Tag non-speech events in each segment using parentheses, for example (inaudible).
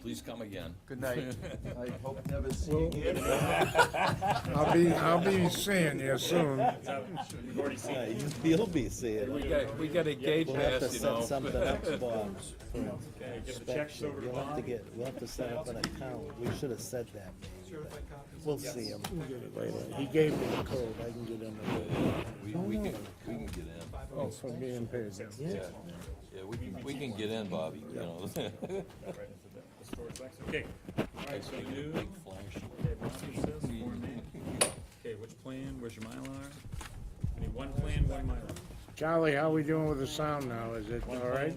Please come again. Good night. I hope never see you Well- again. I'll be, I'll be seeing you soon. We've already seen it. You'll be seeing We it. got, we got a gate We'll have to pass, you set know. something up (laughs) for for Get the checks inspection. over to You'll have to Bob. get, we'll have to set up an account. We should have said that maybe, but we'll see him. Later. He gave me the code. I can get in there. We, we can, we can get in. Oh, for being paid. Yeah. Yeah, we can, we can get in, Bobby, you know. Right into the- the storage box. Okay, alright, so new, Big flash. okay, Bobby says Form A. Okay, which plan, where's your Mylar? I need one plan, one Mylar. Charlie, how we doing with the sound now? Is it all right?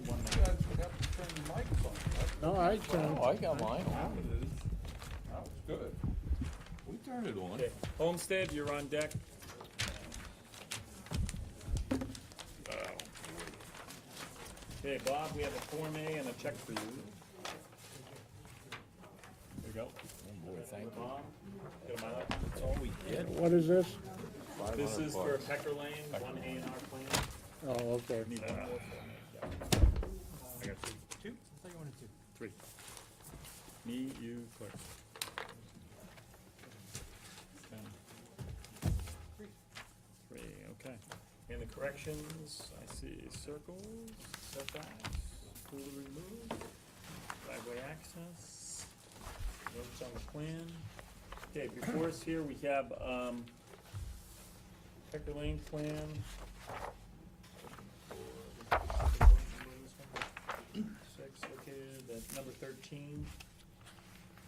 No, I turned, (laughs) Oh, I got mine on. That was good. We turned it on. Okay, Homestead, you're on deck. Okay, Bob, we have a Form A and a check for you. There you go. Oh, boy, thank you. Bob, get a Mylar. That's all we did. what is this? This 500 is for bucks. Pecker Lane, one A and R plan. Oh, okay. Need one more. for me. I got three. Two? I thought you wanted two. Three. Me, you, clerk. Ten. Three, okay. And the corrections, I see circles, setbacks, pool removed, driveway access, notes on the plan. Okay, before us here, we have, um, Pecker Lane plan, Six located at number thirteen,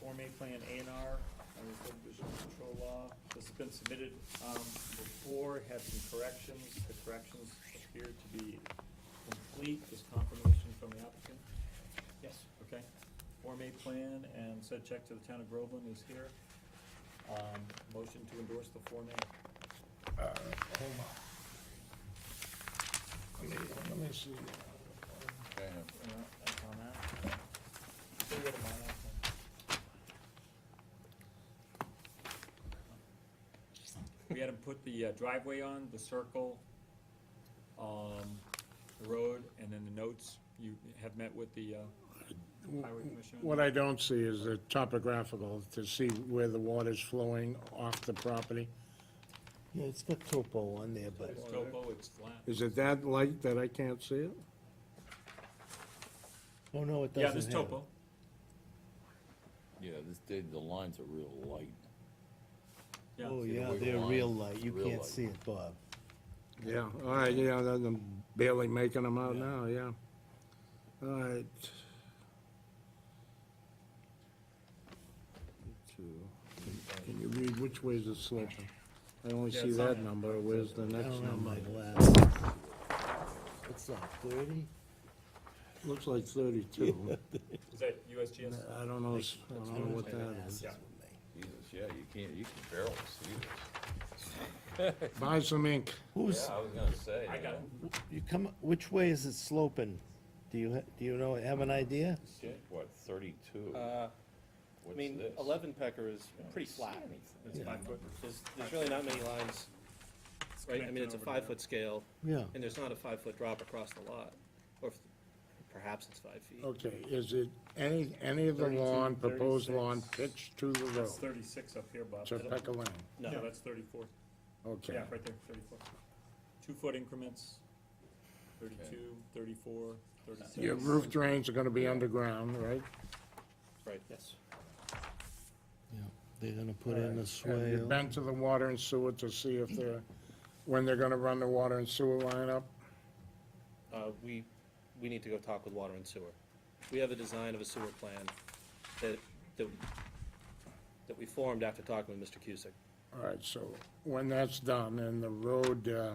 Form A Plan A and R, under subdivision control law. This has been submitted, um, before, had some corrections, the corrections appear to be complete, this confirmation from the applicant. Yes. Okay, Form A Plan and said check to the town of Groveland is here. Um, motion to endorse the Form A. Let me see. Yeah, that's on that. We'll get them on that then. We had him put the uh, driveway on, the circle, um, the road, and then the notes. You have met with the, uh, highway commissioner? What I don't see is the topographical, to see where the water's flowing off the property. Yeah, it's got topo on there, but It's topo, it's flat. Is it that light that I can't see it? oh no, it doesn't Yeah, have. this it. topo. Yeah, this, the, the lines are real light. Yeah. Oh the yeah, wiggle they're line? real light. You Real can't light. see it, Bob. Yeah, all right, yeah, then I'm barely making them out now, yeah. All right. Two. Can you read which way's it sloping? I only Yeah, see it's on that there. number, where's the I next don't know number? my glasses. What's that, thirty? Looks like thirty-two. Is that USGS? I don't know, s- I don't know what that is. Yeah. Jesus, yeah, you can't, you can barely see Buy some ink. this. Who's, Yeah, I was gonna say. I got it. you come, which way is it sloping? Do you, ha- do you know, have an idea? Shit, what, thirty-two? Uh, I What's mean, this? eleven pecker is pretty flat. It's five foot. There's, there's really not many lines, It's right? I connected mean, it's a over to that. five-foot scale, Yeah. and there's not a five-foot drop across the lot, or if- perhaps it's five feet. Oh, Okay, is it any, any of the lawn, proposed lawn 36. pitched to the That's road? thirty-six up here, Bob. To Pecker Lane, No, Yeah, that's thirty-four. okay. Yeah, right there, thirty-four. Two-foot increments, thirty-two, thirty-four, thirty-six. Your roof drains are gonna be underground, right? right, yes. Yeah, They're gonna put in a Have you swale. been to the water and sewer to see if they're, when they're gonna run the water and sewer line up? Uh, we, we need to go talk with water and sewer. We have a design of a sewer plan that, that, that we formed after talking with Mr. Cusick. All right, so when that's done and the road, uh,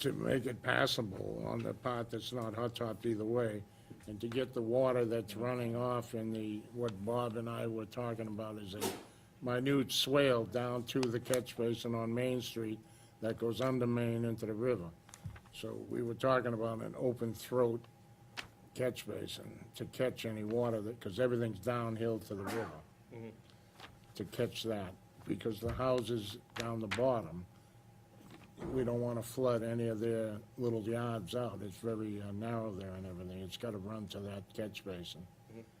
to make it passable on the part that's not hot topped either way, and to get the water that's running off in the, what Bob and I were talking about is a minute swale down to the catch basin on Main Street that goes under Main into the river. So we were talking about an open throat catch basin to catch any water that, because everything's downhill to the river to catch that, because the houses down the bottom, we don't want to flood any of their little yards out. It's very uh, narrow there and everything. It's got to run to that catch basin.